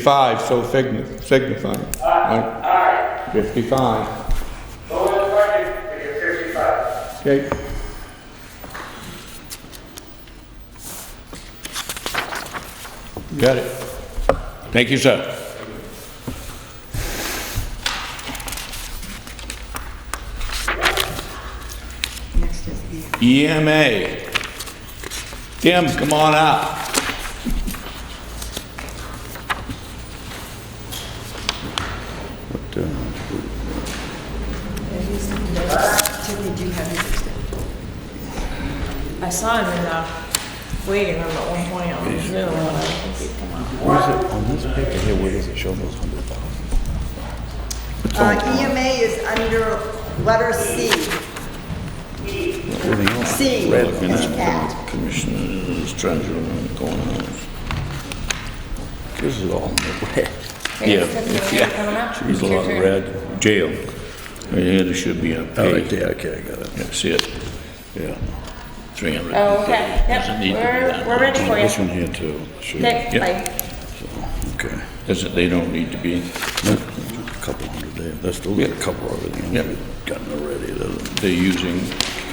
55, so signi- signifying. Aye. Aye. 55, Move the question for your fifty-five. okay. Got it. Thank you, sir. Next is E. EMA. Tim, come on up. Timmy, do you have your extension? I saw him in the waiting room at one point on Zoom when I was thinking, come on. Uh, EMA is under letter C. C, as at. Commissioners, treasurer, going on. This is all in the red. Hey, Yeah, Tiffany, yeah. coming up. There's a lot of Your turn. red. Jail. Right here, there should be a Oh, right page. there, okay, I got it. That's it. Yeah. 300. Oh, okay. Yep. Doesn't need to be We're- that we're ready much. for you. This one here too. Shoot. Okay, Yeah. bye. Okay. Doesn't, they don't need to be, No, a Couple hundred there, that's still got a couple already. Yeah. Gotten already, doesn't they're using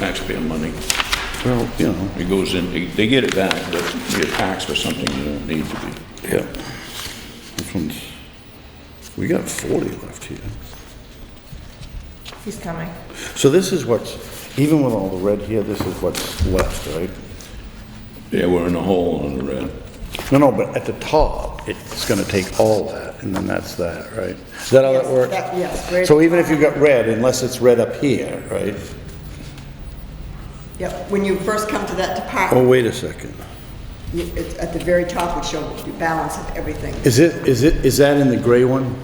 taxpayer money. it? Well, you know, It goes in, they- they get it back, but you're taxed for something you don't need to be. yeah. This one's, we got forty left here. He's coming. So this is what's, even with all the red here, this is what's left, right? Yeah, we're in a hole on the red. No, no, but at the top, it's gonna take all that, and then that's that, right? Is that how that works? that- yes, red. So even if you've got red, unless it's red up here, right? Yep, when you first come to that Oh, department, wait a second. Oh. you- it's at the very top would show the balance of everything. Is it, is it, is that in the gray one?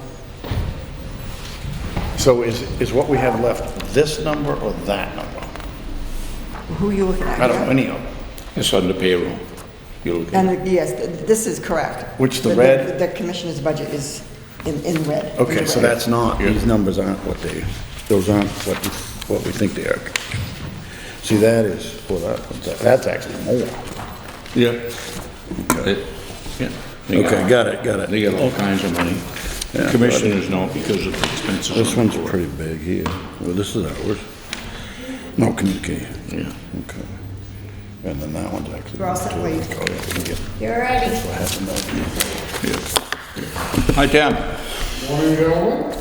So is, is what we have left this number or that number? Who you looking at? I don't know any of them. It's under payroll. You're looking. And yes, th- this is correct. Which the red- The commissioner's budget is in, in red. in Okay, so red. that's not, these numbers aren't what they, those aren't what, we- what we think they are. See, that is, well, that, one's- that's actually more. Yeah. It- yeah, they got- Okay, got it, got it. They got all kinds of money. Yeah. Commissioners don't because of the expenses. on This the one's board. pretty big here. Well, this is ours. No communication. Yeah. Okay. And then that one's actually. We're all set, Oh, Wade. yeah, we can get- You're ready. I have another. Hi, Tim. Morning, gentlemen.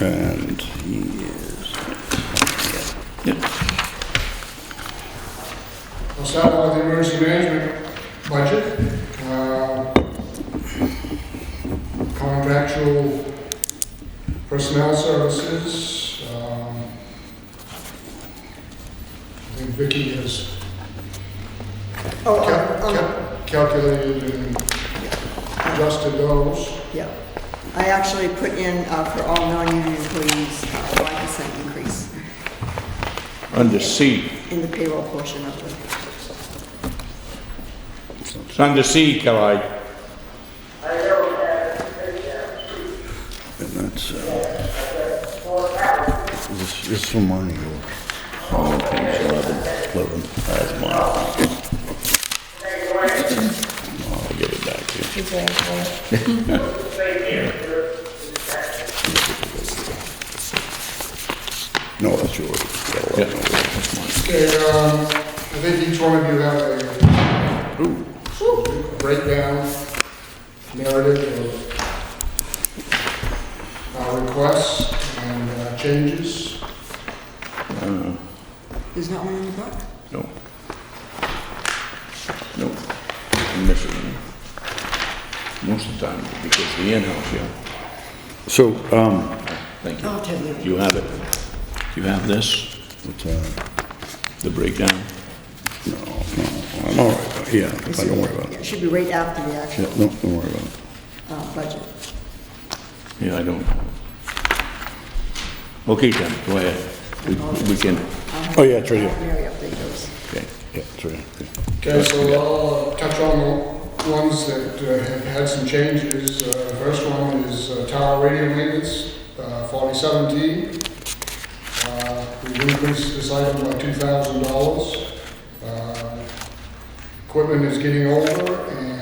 And he is, We'll start with the emergency management budget. Um, Contractual personnel services. um, I think Vicky has Oh, cal- oh, oh, cal- calculated and adjusted those. yeah. I actually put in uh, for all non-union employees, uh, a one percent increase Under C, in the payroll portion of the, it's under C, Clyde. I know that. and that's, uh, this, this is mine, yours. Oh, page eleven. Eleven, that's mine. I'll get it back here. He's ready for you. No, that's yours. Got Yeah. 11 over there. That's mine. Okay, um, I think each one of you have a breakdown, narrative of our requests and uh, changes. there's not one in the book? No. No, I'm missing one. Most of the time, because the in-house, yeah. So, um, Thank you. I'll tell you. Do you have it? Do you have this, it's, uh, the breakdown? No, no, I'm all right, but yeah, but don't worry about Yeah, it. It should be right after the Yeah, actual no, don't worry about it. uh, budget. Yeah, I don't. have it. Okay, Tim, go ahead. We we can, Oh, yeah, it's right here. Mary update those. okay. Yeah, it's right here. Okay, so I'll uh, touch on the ones that uh, have had some changes. Uh, The first one is uh, tower radio maintenance, uh, 4017. Uh, We've increased this item by $2,000. Uh, Equipment is getting older, and